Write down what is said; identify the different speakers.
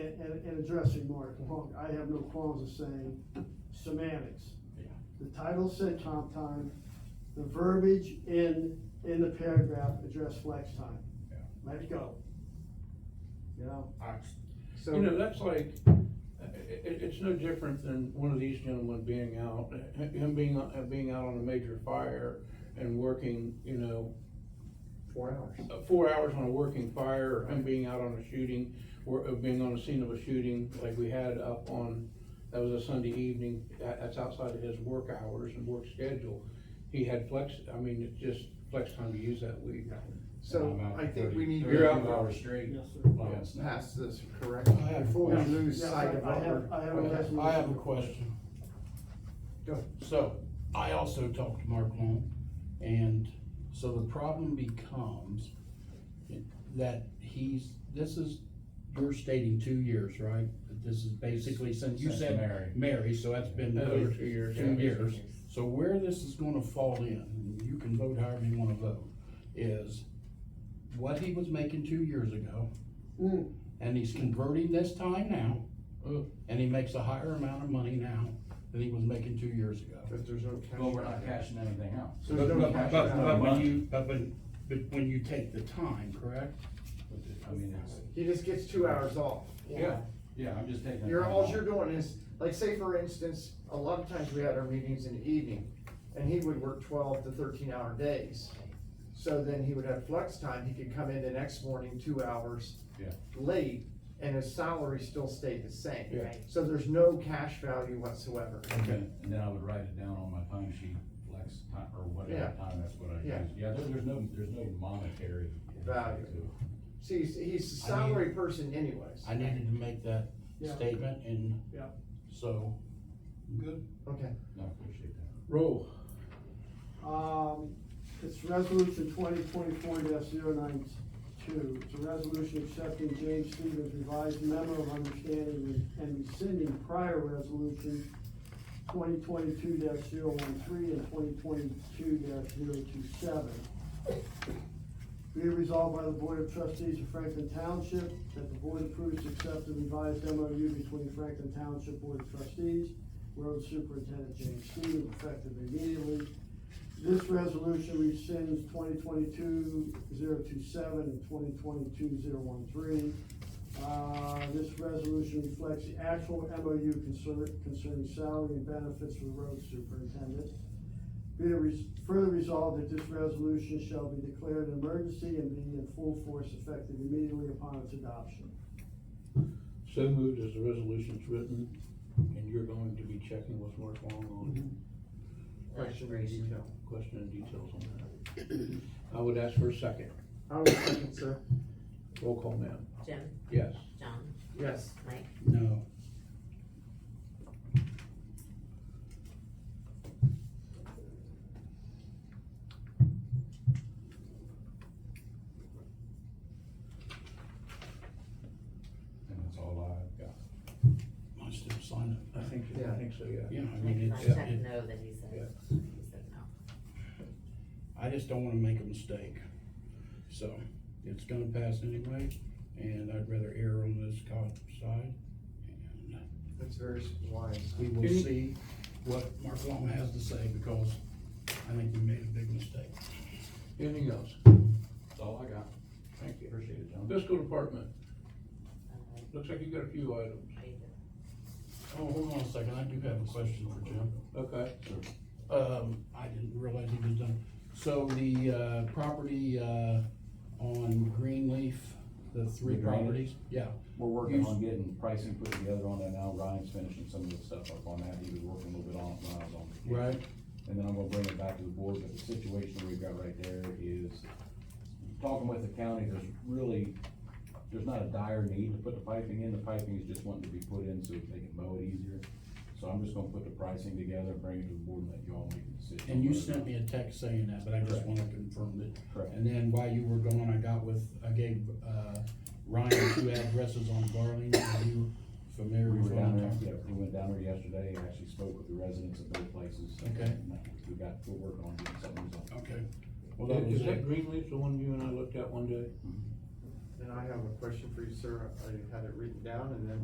Speaker 1: and, and, and addressing Mark Plunk, I have no qualms of saying semantics.
Speaker 2: Yeah.
Speaker 1: The title said comp time, the verbiage in, in the paragraph addressed flex time.
Speaker 2: Yeah.
Speaker 1: Let it go. You know,
Speaker 2: You know, that's like, it, it, it's no different than one of these gentlemen being out, him being, uh, being out on a major fire and working, you know,
Speaker 3: Four hours.
Speaker 2: uh, four hours on a working fire, or him being out on a shooting, or uh, being on the scene of a shooting, like we had up on, that was a Sunday evening, that, that's outside of his work hours and work schedule. He had flex, I mean, it's just flex time to use that week.
Speaker 3: So
Speaker 4: I'm out
Speaker 3: I think we
Speaker 4: 30
Speaker 3: need
Speaker 2: You're
Speaker 3: to
Speaker 2: out.
Speaker 4: Thirty-two hours straight.
Speaker 1: yes, sir.
Speaker 4: by us.
Speaker 3: pass this correctly
Speaker 5: I have-
Speaker 3: before we
Speaker 1: Yes,
Speaker 3: lose
Speaker 1: yes,
Speaker 3: sight of
Speaker 1: I- I
Speaker 3: what we're.
Speaker 1: have, I have a
Speaker 5: Okay,
Speaker 1: resolution.
Speaker 5: I have a question.
Speaker 3: Go ahead.
Speaker 5: So, I also talked to Mark Long, and so the problem becomes that he's, this is, you're stating two years, right? That this is basically since you
Speaker 4: Since
Speaker 5: said
Speaker 4: Mary.
Speaker 5: Mary, so that's been
Speaker 2: Over
Speaker 5: over
Speaker 2: two years.
Speaker 5: two years. So where this is gonna fall in, and you can vote however you wanna vote, is what he was making two years ago,
Speaker 1: Mm,
Speaker 5: and he's converting this time now,
Speaker 2: Mm.
Speaker 5: and he makes a higher amount of money now than he was making two years ago.
Speaker 3: Cause there's no cash.
Speaker 4: Well, we're not cashing anything out.
Speaker 3: So
Speaker 5: But,
Speaker 3: There's no
Speaker 5: but,
Speaker 3: cash.
Speaker 5: but-
Speaker 3: out.
Speaker 5: but when you, but when, but when you take the time, correct?
Speaker 4: I mean, it's,
Speaker 3: He just gets two hours off.
Speaker 4: yeah, yeah, I'm just taking.
Speaker 3: You're, all you're doing is, like, say for instance, a lot of times we had our meetings in the evening, and he would work twelve to thirteen hour days. So then he would have flex time, he could come in the next morning two hours.
Speaker 4: Yeah.
Speaker 3: Late, and his salary still stayed the same.
Speaker 2: Yeah.
Speaker 6: Right.
Speaker 3: So there's no cash value whatsoever.
Speaker 4: Okay, and then I would write it down on my time sheet, flex time, or
Speaker 3: Yeah.
Speaker 4: whatever time, that's what I
Speaker 3: Yeah.
Speaker 4: use. Yeah, there, there's no, there's no monetary.
Speaker 3: Value.
Speaker 4: to it.
Speaker 3: See, he's, he's a salary person anyways.
Speaker 5: I needed to make that
Speaker 1: Yeah.
Speaker 5: statement and.
Speaker 1: Yeah.
Speaker 5: So. Good.
Speaker 3: Okay.
Speaker 4: No, I appreciate that.
Speaker 2: Roll.
Speaker 1: Um, it's resolution twenty twenty-four 92 It's a resolution accepting James Stevens revised memo of understanding and rescinding prior resolution twenty twenty-two 13 and twenty twenty-two 27 Be it resolved by the Board of Trustees of Franklin Township that the board approves to accept the revised MOU between Franklin Township Board of Trustees, Road Superintendent James Stevens, effective immediately, this resolution rescinds 2022-027 and 2022-013. Uh, this resolution reflects the actual MOU concerning, concerning salary and benefits for the road superintendent. Be it res- further resolved that this resolution shall be declared an emergency and be in full force effective immediately upon its adoption.
Speaker 2: So moved as the resolution's written, and you're going to be checking with Mark Long on
Speaker 5: Mm-hmm.
Speaker 3: Question in detail.
Speaker 2: question and details on that. I would ask for a second.
Speaker 3: I was thinking, sir.
Speaker 2: Roll call, ma'am.
Speaker 6: Jim,
Speaker 2: Yes.
Speaker 6: John,
Speaker 3: Yes.
Speaker 6: Mike,
Speaker 5: No,
Speaker 4: And that's all I've got.
Speaker 5: I still sign
Speaker 2: I think, I
Speaker 3: Yeah.
Speaker 2: think so, yeah.
Speaker 5: Yeah, I mean,
Speaker 6: Nick, I
Speaker 5: it's,
Speaker 6: said
Speaker 5: it-
Speaker 6: no that he said, he said no.
Speaker 5: I just don't wanna make a mistake. So, it's gonna pass anyway, and I'd rather err on this cop side. And
Speaker 3: That's very wise.
Speaker 5: we will
Speaker 2: Can you-
Speaker 5: see what Mark Long has to say, because I think we made a big mistake.
Speaker 2: Anything else?
Speaker 4: That's all I got.
Speaker 2: Thank you.
Speaker 4: Appreciate it, John.
Speaker 2: Fiscal department,
Speaker 6: Uh,
Speaker 2: looks like you got a few items.
Speaker 6: I did.
Speaker 5: Oh, hold on a second, I do have a question for Jim.
Speaker 2: Okay,
Speaker 5: Um, I didn't realize he was done. So the, uh, property, uh, on Greenleaf, the three
Speaker 4: The drainage?
Speaker 5: properties, yeah.
Speaker 4: We're working
Speaker 5: You-
Speaker 4: on getting pricing put together on that now. Ryan's finishing some of the stuff up on that. He was working a little bit on it when I was on. vacation.
Speaker 5: Right.
Speaker 4: And then I'm gonna bring it back to the board, but the situation we've got right there is, talking with the county, there's really, there's not a dire need to put the piping in. The piping is just wanting to be put in so they can mow it easier. So I'm just gonna put the pricing together, bring it to the board and let you all make the decision.
Speaker 5: And you sent me a text saying that, but I just
Speaker 4: Correct.
Speaker 5: wanna confirm it.
Speaker 4: Correct.
Speaker 5: And then while you were gone, I got with, I gave, uh, Ryan two addresses on Garland, are you familiar
Speaker 4: We
Speaker 5: with
Speaker 4: were
Speaker 5: what I'm
Speaker 4: down there,
Speaker 5: talking
Speaker 4: yeah, we went down there yesterday, and actually spoke with the residents of both places.
Speaker 5: Okay.
Speaker 4: And uh, We got, we're working on getting something resolved.
Speaker 5: Okay, well, that was
Speaker 2: is
Speaker 5: it.
Speaker 2: that Greenleaf, the one you and I looked at one day?
Speaker 3: And I have a question for you, sir. I had it written down and then